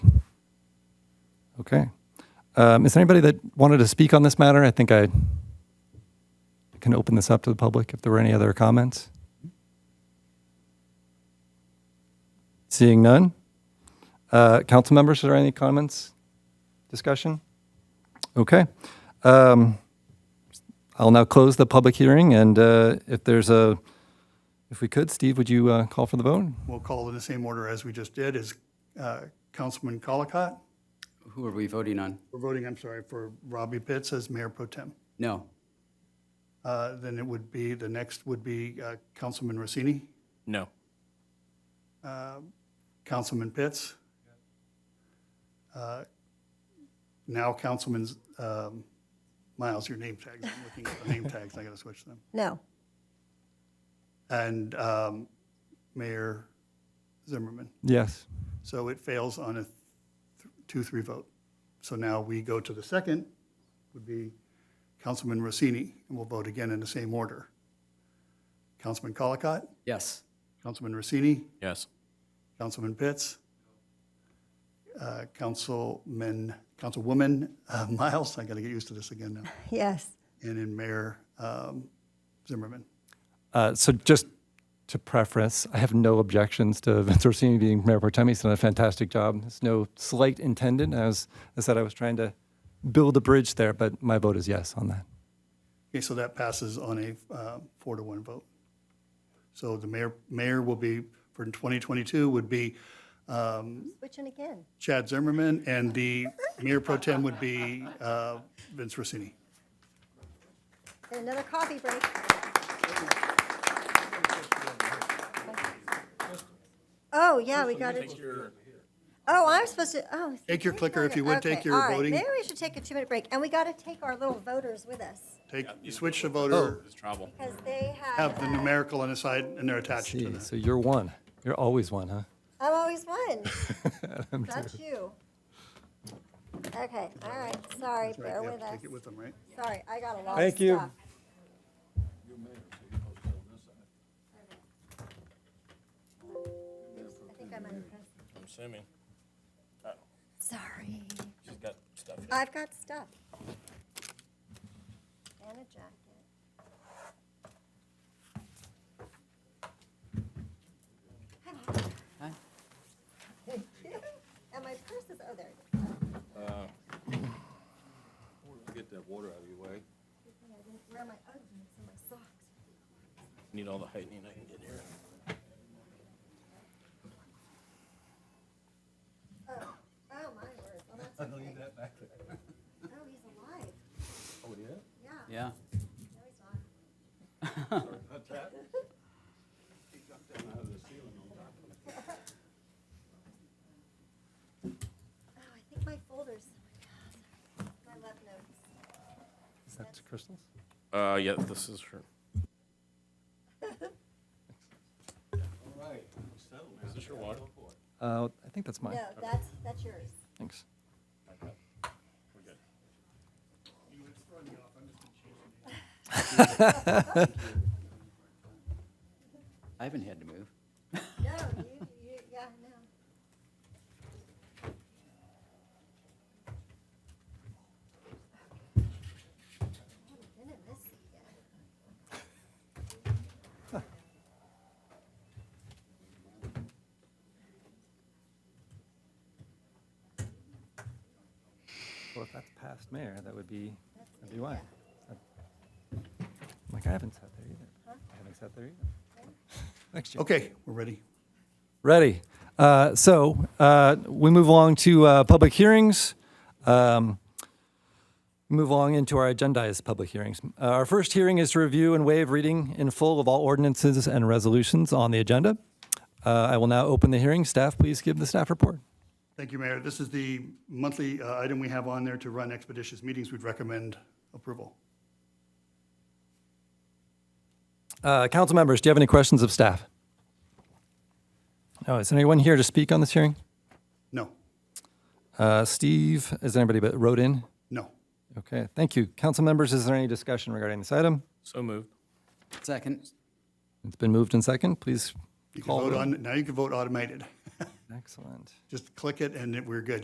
Okay. Um, is there anybody that wanted to speak on this matter? I think I can open this up to the public if there were any other comments. Seeing none. Uh, council members, are there any comments? Discussion? Okay. Um, I'll now close the public hearing and uh, if there's a, if we could, Steve, would you uh, call for the vote? We'll call in the same order as we just did, is uh, Councilman Colacott. Who are we voting on? We're voting, I'm sorry, for Robbie Pitts as Mayor Pro Tem. No, Uh, Then it would be, the next would be uh, Councilman Rossini, No. Councilman Pitts. Uh, Now Councilman um, Miles, your name tags, I'm looking at the name tags, I gotta switch them. No. And um, Mayor Zimmerman. Yes. So it fails on a th- two-three vote. So now we go to the second, would be Councilman Rossini, and we'll vote again in the same order. Councilman Colacott, yes. Councilman Rossini, Yes. Councilman Pitts, uh, Councilman, Councilwoman uh, Miles, I got to get used to this again now, Yes. and then Mayor um, Zimmerman. Uh, So just to preface, I have no objections to Vince Orsini being mayor pro tem. He's done a fantastic job. There's no slight intended. I was, I said I was trying to build a bridge there, but my vote is yes on that. Okay, so that passes on a uh, four to one vote. So the mayor, mayor will be, for 2022, would be Switching again. Chad Zimmerman, and the mayor pro tem would be uh, Vince Rossini. Another coffee break. Oh, yeah, we got it. Oh, I'm supposed to, oh. Take your we clicker if gotta- you would, take okay, your all right. voting. Maybe we should take a two-minute break, and we got to take our little voters with us, Take, switch the voter, It's travel. because they have, have the numerical on the side, and they're attached to Gee, that. So you're one. You're always one, huh? I'm always one. That's you. Okay, all right, sorry, Right, bear they have with to us. take it with them, right? Sorry, I got a lot of stuff. Thank you. I think I'm under pressure. I'm assuming Sorry. she's got stuff. I've got stuff. And a jacket. Hi. Thank you. And my purse is, oh, there it is. Get that water out of your way. I didn't wear my Uggs and my socks. Need all the heightening I can get here. Oh, my word. Well, that's okay. Oh, he's alive. Oh, yeah? Yeah. Yeah, No, he's not. Oh, I think my folder's, my left notes. Is that Crystal's? Uh, yeah, this is her. Is this your water? Uh, I think that's mine. No, that's, that's yours. Thanks. I haven't had to move. No, you, you, yeah, no. Haven't been in Oh, this seat yet. Well, if that's past mayor, that would be, that'd be why. Like, I haven't sat there either. I haven't sat there either. Next year. Okay, we're ready. Ready. Uh, So uh, we move along to uh, public hearings. Um, Move along into our agendized public hearings. Uh, Our first hearing is to review and waive reading in full of all ordinances and resolutions on the agenda. Uh, I will now open the hearing. Staff, please give the staff report. Thank you, Mayor. This is the monthly uh, item we have on there to run expeditious meetings. We'd recommend approval. Uh, Council members, do you have any questions of staff? No, is anyone here to speak on this hearing? No, Uh, Steve, is anybody but wrote in? no. Okay, thank you. Council members, is there any discussion regarding this item? So moved. Second, It's been moved and second. Please You can call. vote roll. on, now you can vote automated. Excellent. Just click it, and it- we're good.